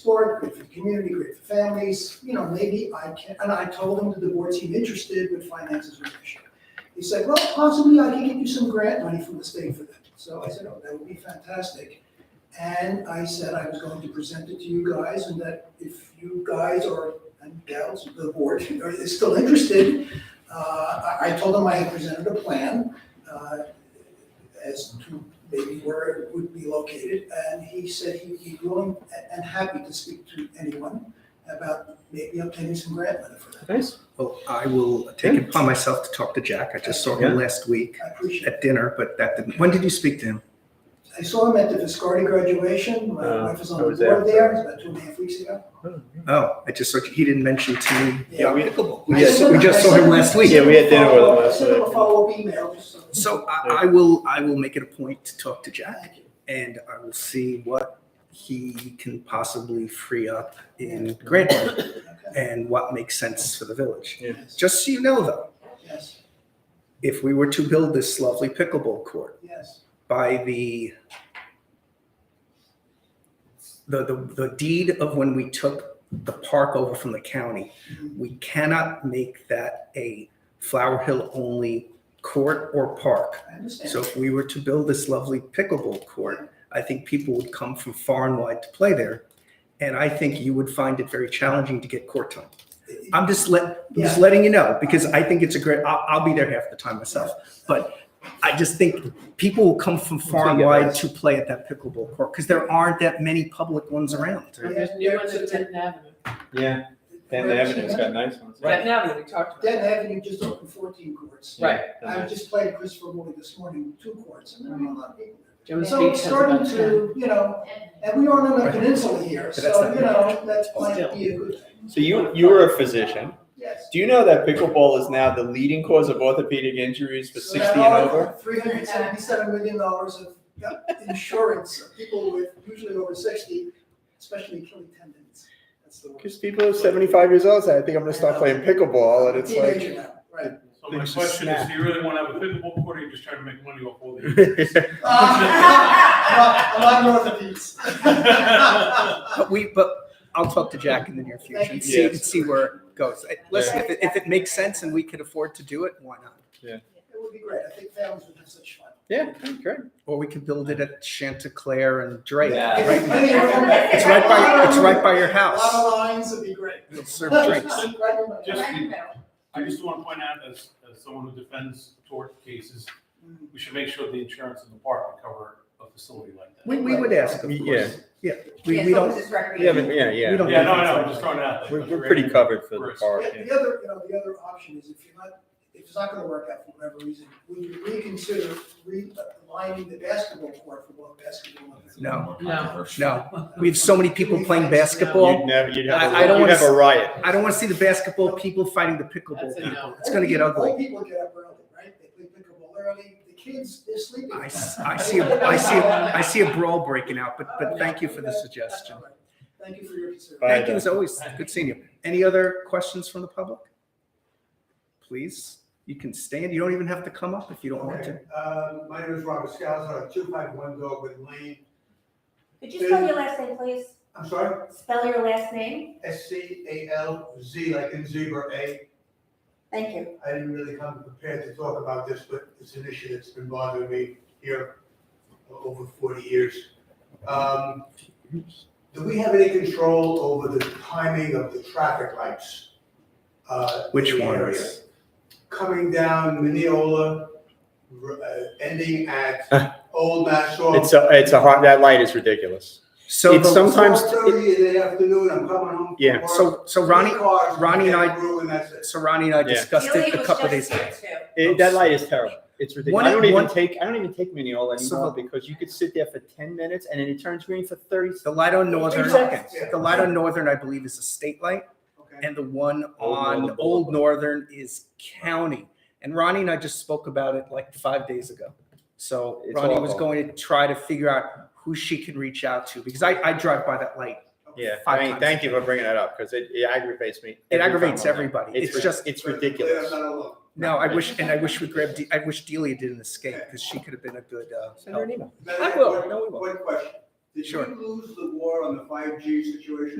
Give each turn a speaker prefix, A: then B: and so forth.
A: sport, great for the community, great for families, you know, maybe I can, and I told him that the board seemed interested, but finances were an issue. He said, well, possibly I can get you some grant money from the state for that. So I said, oh, that would be fantastic. And I said I was going to present it to you guys and that if you guys or, and gals, the board are- is still interested, uh, I, I told them I had presented a plan, uh, as to maybe where it would be located. And he said he'd be willing a- and happy to speak to anyone about maybe obtaining some grant money for that.
B: Nice.
C: Well, I will take it upon myself to talk to Jack. I just saw him
B: Yeah.
C: last week
A: I appreciate it.
C: at dinner, but that didn't. When did you speak to him?
A: I saw him at the Viscardi graduation. My
B: Uh,
A: wife was
B: I
A: on the
B: was
A: board
B: there.
A: there, it was about two and a half weeks ago.
C: Oh, I just saw he didn't mention to me.
A: Yeah, we-
C: pickleball. We
A: I
C: just,
A: sent
C: we
A: him-
C: just
A: I
C: saw
A: sent
C: him
A: him-
C: last
A: I
C: week.
A: sent
B: Yeah, we
A: him
B: had
A: a
B: dinner with him
A: follow-up- I
B: last
A: sent him a
B: night.
A: follow-up email, just so.
C: So I, I will I will make it a point to talk to Jack
A: Thank you.
C: and I will see what he can possibly free up in grant money
A: Okay.
C: and what makes sense for the village.
A: Yes,
C: Just so you know though,
A: yes,
C: if we were to build this lovely pickleball court,
A: yes.
C: by the the, the, the deed of when we took the park over from the county, we cannot make that a Flower Hill only court or park.
A: I understand.
C: So if we were to build this lovely pickleball court, I think people would come from far and wide to play there. And I think you would find it very challenging to get court time. I'm just let, I'm just letting you know, because I think it's a great, I'll, I'll be there half the time myself. But I just think people will come from far and wide to play at that pickleball court, because there aren't that many public ones around.
A: Yeah,
D: There's new
A: yeah,
D: ones
A: so
D: at Denton Avenue.
B: Yeah, Denton
A: Right.
B: Avenue's got nice ones.
D: Denton Avenue, we talked about.
A: Denton Avenue just opened fourteen courts.
D: Right.
A: I was just playing Christopher Woolley this morning, two courts, and there were a lot of people.
D: Jones
A: So
D: Beach
A: it's
D: has about
A: starting
D: 10.
A: to, you know, and we aren't on the
C: Right.
A: peninsula here,
C: But that's
A: so,
C: not-
A: you know, that might
D: Still.
A: be a good thing.
B: So you you're a physician.
A: Yes.
B: Do you know that pickleball is now the leading cause of orthopedic injuries for
A: So
B: 60
A: that
B: and
A: article,
B: over?
A: $377 million of insurance, of people with usually over 60, especially killing tendons. That's the word.
B: Because people are 75 years old, say, I think I'm going to start playing pickleball, and it's
A: Teenager
B: like.
A: now, right.
E: So my
B: It's a
E: question is,
B: snack.
E: do you really want to have a pickleball court or you just trying to make money off all the?
A: Uh, I'm not- I'm not north of these.
C: But Uh, we, but I'll talk to Jack in the near future and see, and see where it goes. I- Listen, if it, if it makes sense and we could afford to do it, why not?
A: It would be great. I think families would have such fun.
B: Yeah, great.
C: Or we could build it at Chanticleer and Drake.
B: Yeah.
C: Right? It's
A: It's
C: right by, it's right by
A: A
C: your
A: lot
C: house.
A: of lines would be great.
C: It'll serve drinks.
E: Just- I just want to point out, as, as someone who defends tort cases, we should make sure the insurance in the park would cover a facility like that.
C: We, we would ask, of
B: Yeah.
C: course. Yeah, we, we don't,
B: Yeah, but yeah,
C: We
B: yeah.
C: don't-
E: Yeah, no, no, I'm just throwing it out there.
B: We're, we're pretty covered for the park.
A: Yeah,
B: yeah.
A: The other, you know, the other option is if you're not, if it's not gonna work out for whatever reason, would you reconsider realigning the basketball court for both basketball and.
C: no,
D: No.
C: no. We have so many people playing basketball.
B: You'd never, you'd have,
C: I- I
B: a,
C: don't
B: you'd
C: wanna
B: have a
C: s-
B: riot.
C: I don't want to see the basketball people fighting the pickleball
D: That's a
C: people.
D: no.
C: It's going to get
A: Old
C: ugly.
A: people get up early, right? They play pickleball early. The kids, they're sleeping.
C: I, s- I see, a- I see, a- I see a brawl breaking out, but, but thank you for the suggestion.
A: Thank you for your consideration.
C: Thank you as always. Good seeing you. Any other questions from the public? Please, you can stand. You don't even have to come up if you don't want to.
F: Okay, uh, my name is Robert Scalzo, I'm two five one Dogwood Lane.
G: Could you spell your last name, please?
F: I'm sorry,
G: Spell your last name?
F: S C A L Z, like in zebra A.
G: Thank you.
F: I didn't really come prepared to talk about this, but it's an issue that's been bothering me here for over forty years. Um, do we have any control over the timing of the traffic lights? uh, in
C: Which
F: the area?
C: ones?
F: Coming down Mineola, r- uh, ending at Old Nassau.
B: It's a, it's a hard, that light is ridiculous.
C: So
B: It's
C: the-
B: some- Sometimes
F: Four thirty in the afternoon, I'm coming home. from
B: Yeah.
F: work,
C: So, so Ronnie,
F: three cars,
C: Ronnie and I-
F: get through, and that's it.
C: so Ronnie and I
B: Yeah.
C: discussed it a couple of days ago.
B: It, that light is terrible. It's ridiculous.
C: One-
B: I don't even
C: one-
B: take I don't even take Mineola
C: So
B: anymore
C: the-
B: because you could sit there for ten minutes and then it turns green for thirty.
C: The light on Northern,
B: Two seconds.
C: the light on Northern, I believe, is a state light,
F: Okay.
C: and the one
B: Old
C: on
B: Northern
C: Old
B: Boulevard.
C: Northern is county. And Ronnie and I just spoke about it like five days ago. So
B: It's
C: Ronnie was
B: awful.
C: going to try to figure out who she can reach out to, because I, I drive by that light.
B: Yeah,
C: Five
B: I mean,
C: times.
B: thank you for bringing that up because it, it aggravates me.
C: It
B: every time
C: aggravates
B: I'm there.
C: everybody.
B: It's,
C: It's
B: ri-
C: just-
B: it's
F: But
B: ridiculous.
F: I'm not alone.
C: No, I wish, and I wish we grabbed, De- I wish Delia didn't escape, because she could have been a good, uh,
B: Send her
C: help.
B: an email.
F: Matter of
C: I
F: fact,
C: will.
F: one-
C: No, we will.
F: One question. Did
C: Sure.
F: you lose the war on the five G situation?